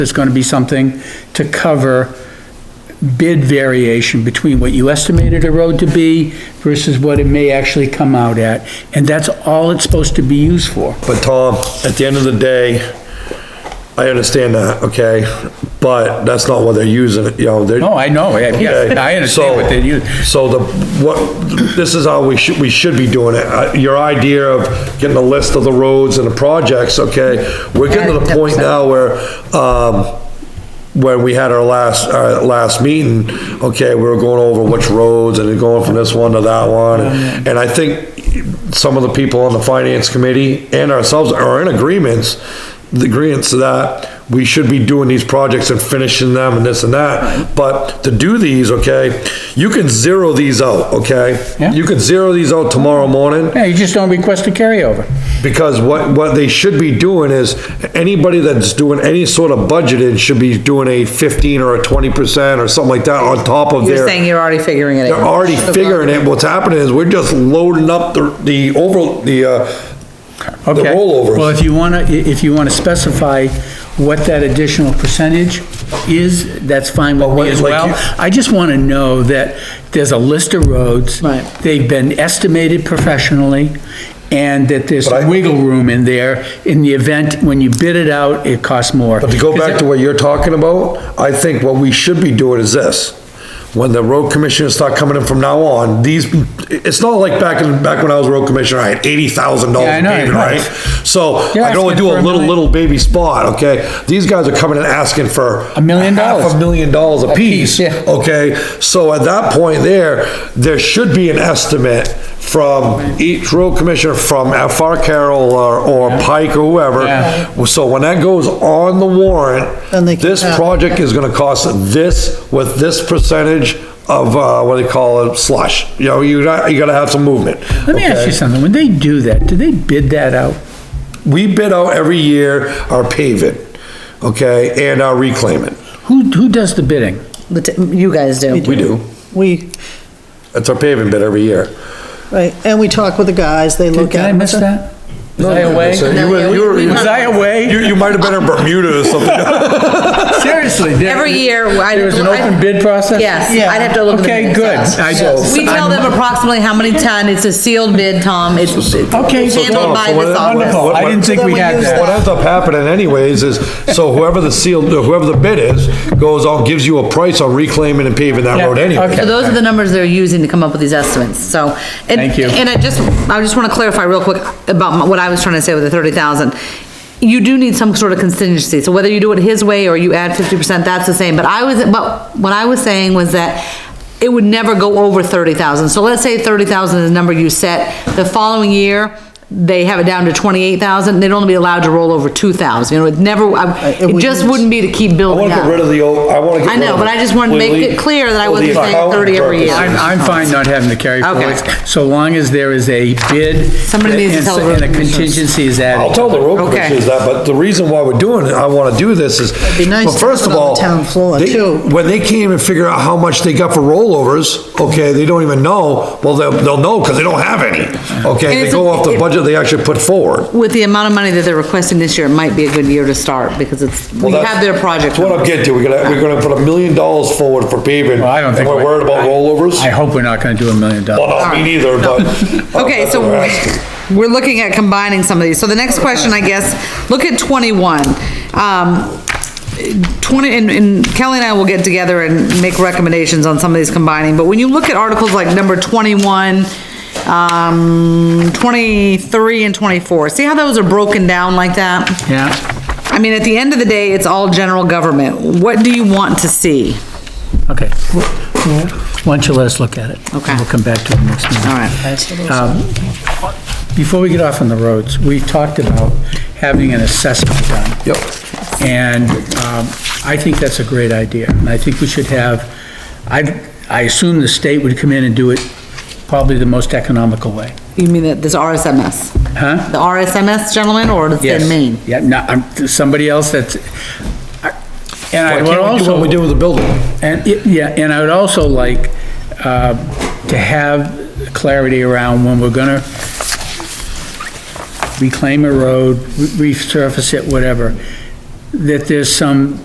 there's gonna be something to cover bid variation between what you estimated a road to be versus what it may actually come out at, and that's all it's supposed to be used for. But Tom, at the end of the day, I understand that, okay? But that's not what they're using, it, you know, they're. No, I know, yeah, Okay, yeah, I understand what so- they use. So the, what, this is how we should, we should be doing it. Uh, Your idea of getting a list of the roads and the projects, okay? We're getting to the point now where, um, when we had our last, our last meeting, okay, we were going over which roads and going from this one to that one. And I think some of the people on the finance committee and ourselves are in agreements, the agreements that we should be doing these projects and finishing them and this and that. But to do these, okay, you can zero these out, okay? Yeah. You could zero these out tomorrow morning. Yeah, you just don't request a carryover. Because what, what they should be doing is, anybody that's doing any sort of budgeting should be doing a fifteen or a twenty percent or something like that on top of You're their. saying you're already figuring it out. They're already figuring it, what's happening is we're just loading up the, the over, the, uh, the Okay. rollovers. Well, if you wanna, i- if you wanna specify what that additional percentage is, that's fine with what- me as like well. you- I just wanna know that there's a list of roads. Right. They've been estimated professionally, and that there's But I- wiggle room in there in the event, when you bid it out, it costs more. But to go back to what you're talking about, I think what we should be doing is this. When the road commissioners start coming in from now on, these, it's not like back in, back when I was road commissioner, I had eighty thousand Yeah, I dollars know, paving, I know. right? So You're I can only asking do for a a little, million. little baby spot, okay? These guys are coming in asking for. A million half dollars. A million dollars a piece, piece, yeah. okay? So at that point there, there should be an estimate from each road commissioner, from FR Carroll or, or Pike or whoever, Yeah. well, So when that goes on the Then they warrant, can this have it. project is gonna cost this, with this percentage of, uh, what do they call it, slush. You know, you gotta, you gotta have some movement. Let me ask you something, when they do that, do they bid that out? We bid out every year our paving, okay, and our reclaiming. Who, who does the bidding? The t- You guys do. We do. We, That's our paving bid every year. right, and we talk with the guys, they Did look did at. I it. miss that? Was I away? So you were- you were- Was I away? You, you might have been in Bermuda or something. Seriously? there- Every year, I. There was an open bid process? Yes, Yeah. I'd have to look. in the Okay, minutes, good. yeah. I- We tell them approximately how many ton, it's a sealed bid, Tom, it's it's Okay, so handled Tom, by so what- this office. wonderful. Wonderful, I didn't think we had What that. ends up happening anyways is, so whoever the seal, whoever the bid is, goes out, gives you a price on reclaiming and paving that Yeah, road anyway. okay. So those are the numbers they're using to come up with these estimates, so. and- Thank you. And I just, I just wanna clarify real quick about my- what I was trying to say with the thirty thousand. You do need some sort of contingency, so whether you do it his way or you add fifty percent, that's the same, but I was, but what I was saying was that it would never go over thirty thousand, so let's say thirty thousand is the number you set, the following year, they have it down to twenty-eight thousand, they'd only be allowed to roll over two thousand, you know, it never, I- it it just wouldn't- wouldn't be to keep I building wanna up. get rid of the old, I wanna get I rid know, of but I just wanted to make completely it clear that I for the wasn't saying accountant 30 every year. purposes. I'm, I'm fine not having the carry Okay. forwards, so long as there is a bid. Somebody needs to and- tell the road And a commissioners. contingency is added. I'll tell the road Okay. commissioners that, but the reason why we're doing it, I wanna do this is, be nice well, to first have of it on the all. town floor, they- too. When they can't even figure out how much they got for rollovers, okay, they don't even know, well, they'll, they'll know, cause they don't have any. And Okay, they it's go a- off the it- budget they actually put forward. With the amount of money that they're requesting this year, it might be a good year to start, because it's, we Well, that's- have their project. That's what I'm getting to, we're gonna, we're gonna put a million dollars forward for paving. Well, I don't think. And we're worried about rollovers? I hope we're not gonna do a million Well, dollars. not me neither, but. uh, Okay, that's so what we're asking. we're looking at combining some of these. So the next question, I guess, look at twenty-one. Um, twenty, and, and Kelly and I will get together and make recommendations on some of these combining, but when you look at articles like number twenty-one, um, twenty-three and twenty-four, see how those are broken down like that? Yeah, I mean, at the end of the day, it's all general government. What do you want to see? okay. Why don't you let us look at it? Okay. We'll come back to it next meeting. All right. Before we get off on the roads, we talked about having an assessment done. Yep, And um, I think that's a great idea, and I think we should have, I, I assume the state would come in and do it probably the most economical way. You mean that this RSMS? Huh? The RSMS gentleman or the Yes. thin mean? Yeah, no, I'm, somebody else that's, I- and I why would can't we do also. what we did with the building? And, it- yeah, and I would also like uh, to have clarity around when we're gonna reclaim a road, re- resurface it, whatever, that there's some